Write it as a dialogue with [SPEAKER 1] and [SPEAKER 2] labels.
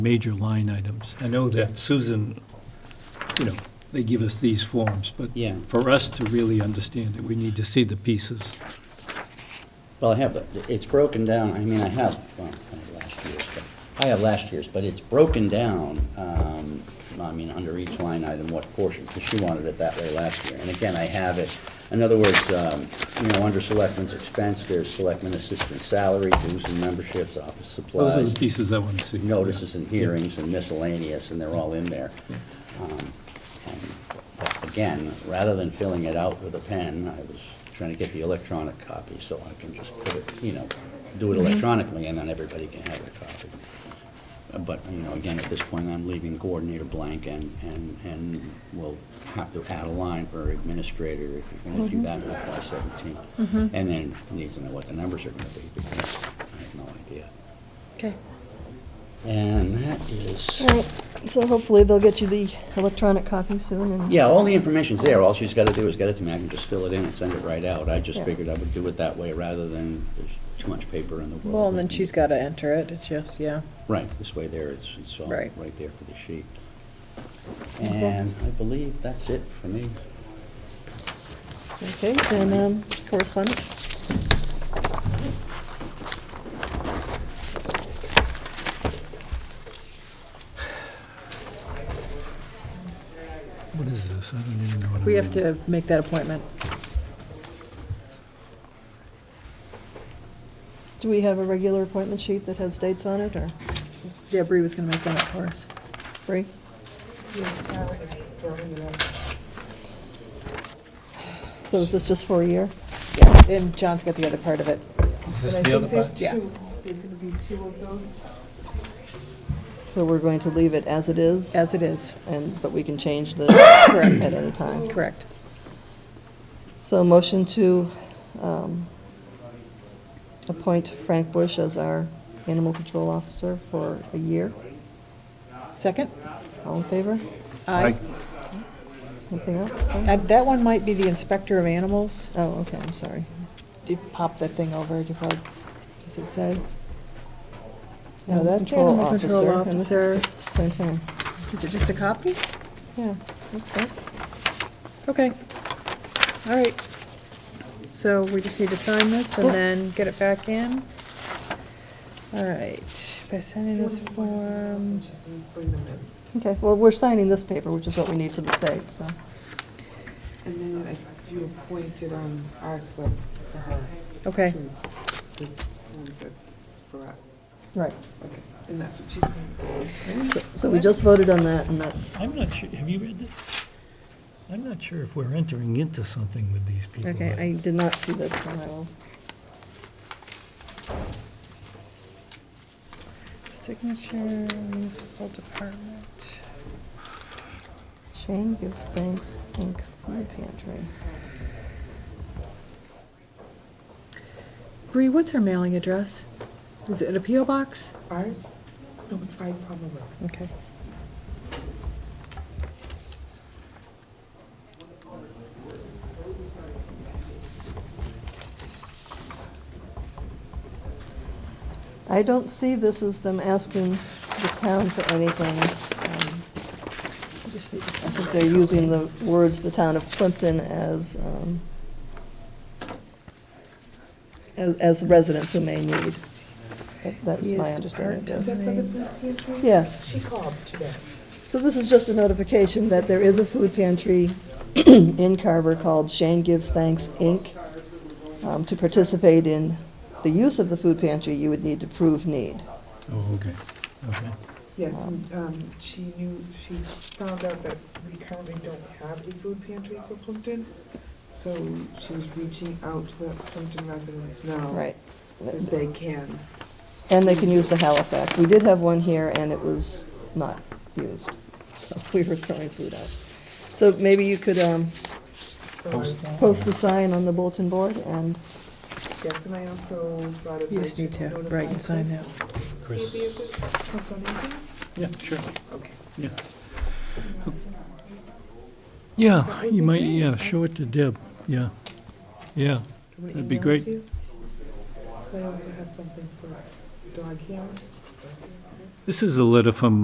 [SPEAKER 1] major line items. I know that Susan, you know, they give us these forms, but
[SPEAKER 2] Yeah.
[SPEAKER 1] for us to really understand it, we need to see the pieces.
[SPEAKER 2] Well, I have, the- it's broken down, I mean, I have, well, I have last year's, but, I have last year's, but it's broken down, um, I mean, under each line item, what portion, because she wanted it that way last year. And again, I have it, in other words, um, you know, under selectmen's expense, there's selectmen assistant salary, dues and memberships, office supplies.
[SPEAKER 1] Those are the pieces I want to see.
[SPEAKER 2] notices and hearings and miscellaneous, and they're all in there. Um, and, but Again, rather than filling it out with a pen, I was trying to get the electronic copy, so I can just put it, you know, do it electronically, and then everybody can have their copy. Uh, But, you know, again, at this point, I'm leaving coordinator blank, and, and, and we'll have to add a line for administrator, if you're gonna do that in
[SPEAKER 3] Mm-hmm.
[SPEAKER 2] FY seventeen. And then need to know what the numbers are gonna be, because I have no idea.
[SPEAKER 3] Okay.
[SPEAKER 2] And that is,
[SPEAKER 3] All right, so hopefully they'll get you the electronic copy soon and.
[SPEAKER 2] yeah, all the information's there, all she's gotta do is get it to me, I can just fill it in and send it right out. I just
[SPEAKER 3] Yeah.
[SPEAKER 2] figured I would do it that way rather than, there's too much paper in the world.
[SPEAKER 4] Well, and then she's got to enter it, it's just, yeah.
[SPEAKER 2] Right, this way there, it's, it's all
[SPEAKER 4] Right.
[SPEAKER 2] right there for the sheet.
[SPEAKER 3] Okay.
[SPEAKER 2] And I believe that's it for me.
[SPEAKER 3] Okay, then, um, correspondence.
[SPEAKER 1] What is this? I don't even know what I'm...
[SPEAKER 4] We have to make that appointment.
[SPEAKER 3] Do we have a regular appointment sheet that has dates on it, or
[SPEAKER 4] Yeah, Bree was going to make that up for us.
[SPEAKER 3] free? So is this just for a year?
[SPEAKER 4] Yeah, and John's got the other part of
[SPEAKER 1] Is
[SPEAKER 4] it.
[SPEAKER 5] But
[SPEAKER 1] this
[SPEAKER 5] I
[SPEAKER 1] the
[SPEAKER 5] think
[SPEAKER 1] other
[SPEAKER 5] there's
[SPEAKER 1] part?
[SPEAKER 4] Yeah.
[SPEAKER 5] two, there's gonna be two of those.
[SPEAKER 3] So we're going to leave it as it is?
[SPEAKER 4] As it is,
[SPEAKER 3] And, but we can change the,
[SPEAKER 4] Correct.
[SPEAKER 3] at any time?
[SPEAKER 4] correct.
[SPEAKER 3] So motion to um, appoint Frank Bush as our animal control officer for a year.
[SPEAKER 4] Second?
[SPEAKER 3] All in favor?
[SPEAKER 4] Aye.
[SPEAKER 3] Anything else? No?
[SPEAKER 4] Uh, That one might be the inspector of animals.
[SPEAKER 3] Oh, okay, I'm sorry.
[SPEAKER 4] You pop that thing over, you probably, does it say? No,
[SPEAKER 3] Animal
[SPEAKER 4] that's
[SPEAKER 3] control
[SPEAKER 4] animal control
[SPEAKER 3] and this is
[SPEAKER 4] officer.
[SPEAKER 3] the Same thing,
[SPEAKER 4] Is it just a copy?
[SPEAKER 3] yeah, looks like.
[SPEAKER 4] Okay. All right. So we just need to sign this and then get it back in. All right, by sending this form,
[SPEAKER 5] Just gonna bring them in.
[SPEAKER 3] Okay, well, we're signing this paper, which is what we need for the state, so.
[SPEAKER 5] And then I- you appointed um, on our slip for her.
[SPEAKER 4] okay,
[SPEAKER 5] too. This one's it for us.
[SPEAKER 3] Right.
[SPEAKER 5] Okay, and that's what she's gonna do.
[SPEAKER 3] So- So we just voted on that, and that's,
[SPEAKER 1] I'm not sure, have you read this? I'm not sure if we're entering into something with these people.
[SPEAKER 3] okay, I did not see this, so I will.
[SPEAKER 4] signature, municipal department.
[SPEAKER 3] Shane gives thanks, Inc. food pantry.
[SPEAKER 4] Bree, what's her mailing address? Is it a PO box?
[SPEAKER 5] Ours? No, it's five Palmer Road.
[SPEAKER 4] Okay.
[SPEAKER 3] I don't see this as them asking the town for anything. Um,
[SPEAKER 4] We just need to
[SPEAKER 3] I
[SPEAKER 4] sign.
[SPEAKER 3] think they're using the words, "the town of Plimpton," as, um, as- as residents who may need. That- That was my
[SPEAKER 4] Yes,
[SPEAKER 3] understanding.
[SPEAKER 4] part
[SPEAKER 3] yes.
[SPEAKER 5] Is that for the
[SPEAKER 4] Amazing.
[SPEAKER 5] food pantry?
[SPEAKER 3] Yes.
[SPEAKER 5] She called today.
[SPEAKER 3] So this is just a notification that there is a food pantry in Carver called Shane Gives Thanks, Inc. Um, To participate in the use of the food pantry, you would need to prove need.
[SPEAKER 1] Oh, okay, okay.
[SPEAKER 5] Yes, and, um, she knew, she found out that we currently don't have a food pantry for Plimpton. So she was reaching out to let Plimpton residents know.
[SPEAKER 3] Right.
[SPEAKER 5] That they can.
[SPEAKER 3] And they can use the Halifax. We did have one here, and it was not used, so we were throwing food out. So maybe you could um,
[SPEAKER 5] So I-
[SPEAKER 1] Post
[SPEAKER 3] post the sign on the bulletin board, and
[SPEAKER 5] Yes, and I also thought of.
[SPEAKER 4] You just need to write and sign that.
[SPEAKER 1] Chris. Yeah, sure,
[SPEAKER 5] Okay.
[SPEAKER 1] yeah. Yeah, you might, yeah, show it to Deb, yeah, yeah. That'd be great.
[SPEAKER 5] I also have something for dog hearing.
[SPEAKER 1] This is a letter from